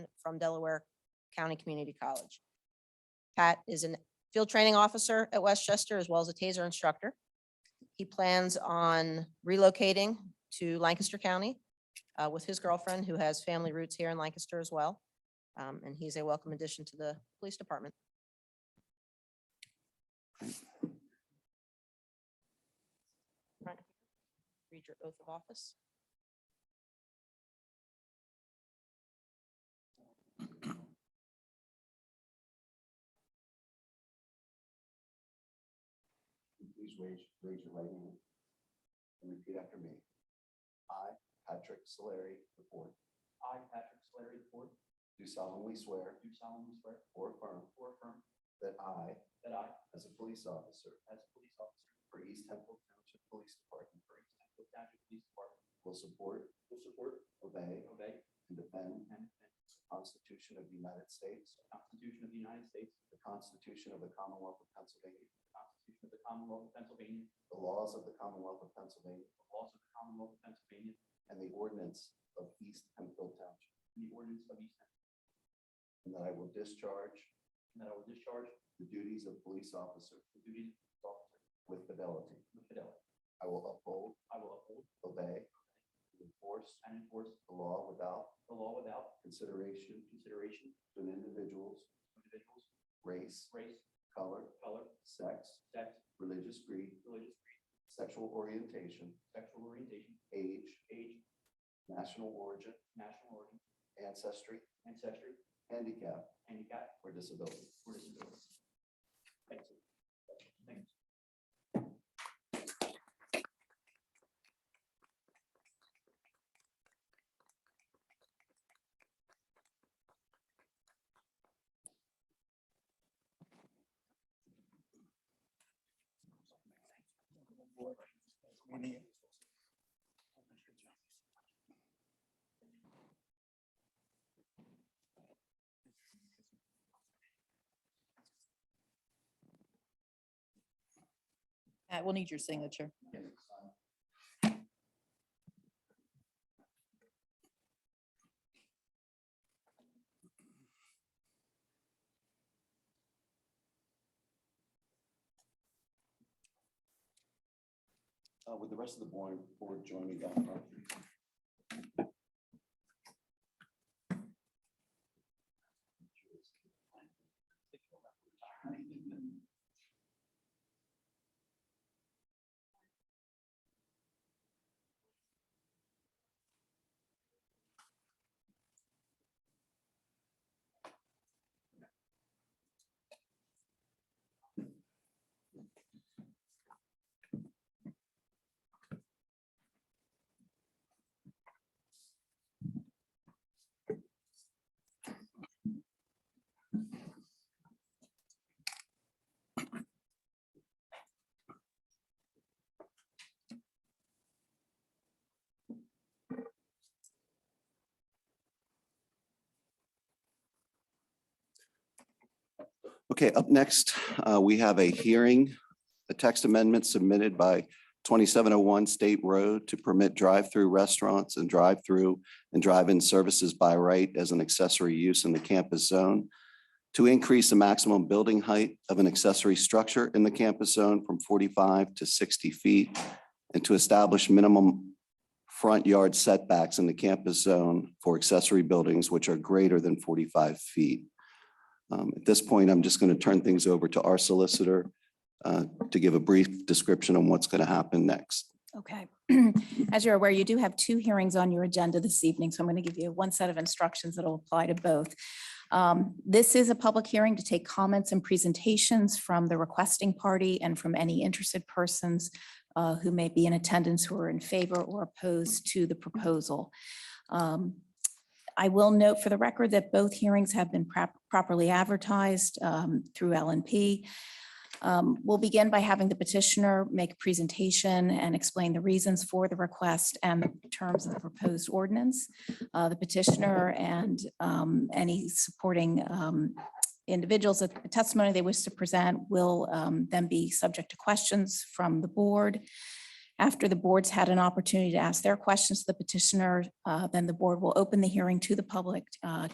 from Delaware County Community College. Pat is a field training officer at Westchester as well as a TASER instructor. He plans on relocating to Lancaster County uh, with his girlfriend, who has family roots here in Lancaster as well. Um, And he's a welcome addition to the police department. Right. Read your oath of office. Please raise, raise your right hand and repeat after me. I, Patrick Solari IV, I, Patrick Slattery IV, do solemnly swear do solemnly swear or affirm or affirm that I, that I, as a police officer as a police officer for East Temple Township Police Department, for East Hampton Township Police Department, will support, will support, obey, obey, and defend and defend the Constitution of the United States, the Constitution of the United States, the Constitution of the Commonwealth of Pennsylvania, the Constitution of the Commonwealth of Pennsylvania, the laws of the Commonwealth of Pennsylvania, the laws of the Commonwealth of Pennsylvania, and the ordinance of East Hemphill Township, and the ordinance of East Hampton, and that I will discharge and that I will discharge the duties of police officer the duties of police officer with fidelity. with fidelity. I will uphold, I will uphold obey, and enforce and enforce the law without the law without consideration consideration to an individual's of individuals, race, race, color, color, sex, sex, religious creed, religious creed, sexual orientation, sexual orientation, age, age, national origin, national origin, ancestry, ancestry, handicap, handicap, or disability. or disability. Thank you. Thanks. Pat, we'll need your signature. Uh, Uh, Would the rest of the board board join me down front? Okay, up next, uh, we have a hearing, a text amendment submitted by 2701 State Road to permit drive-through restaurants and drive-through and drive-in services by right as an accessory use in the campus zone to increase the maximum building height of an accessory structure in the campus zone from 45 to 60 feet and to establish minimum front yard setbacks in the campus zone for accessory buildings which are greater than 45 feet. Um, At this point, I'm just going to turn things over to our solicitor uh, to give a brief description on what's going to happen next. Okay. As you're aware, you do have two hearings on your agenda this evening, so I'm going to give you one set of instructions that'll apply to both. Um, This is a public hearing to take comments and presentations from the requesting party and from any interested persons uh, who may be in attendance who are in favor or opposed to the proposal. Um, I will note for the record that both hearings have been prop- properly advertised um, through LNP. Um, We'll begin by having the petitioner make a presentation and explain the reasons for the request and the terms of the proposed ordinance. Uh, The petitioner and um, any supporting um, individuals that the testimony they wish to present will um, then be subject to questions from the board. After the board's had an opportunity to ask their questions to the petitioner, uh, then the board will open the hearing to the public uh,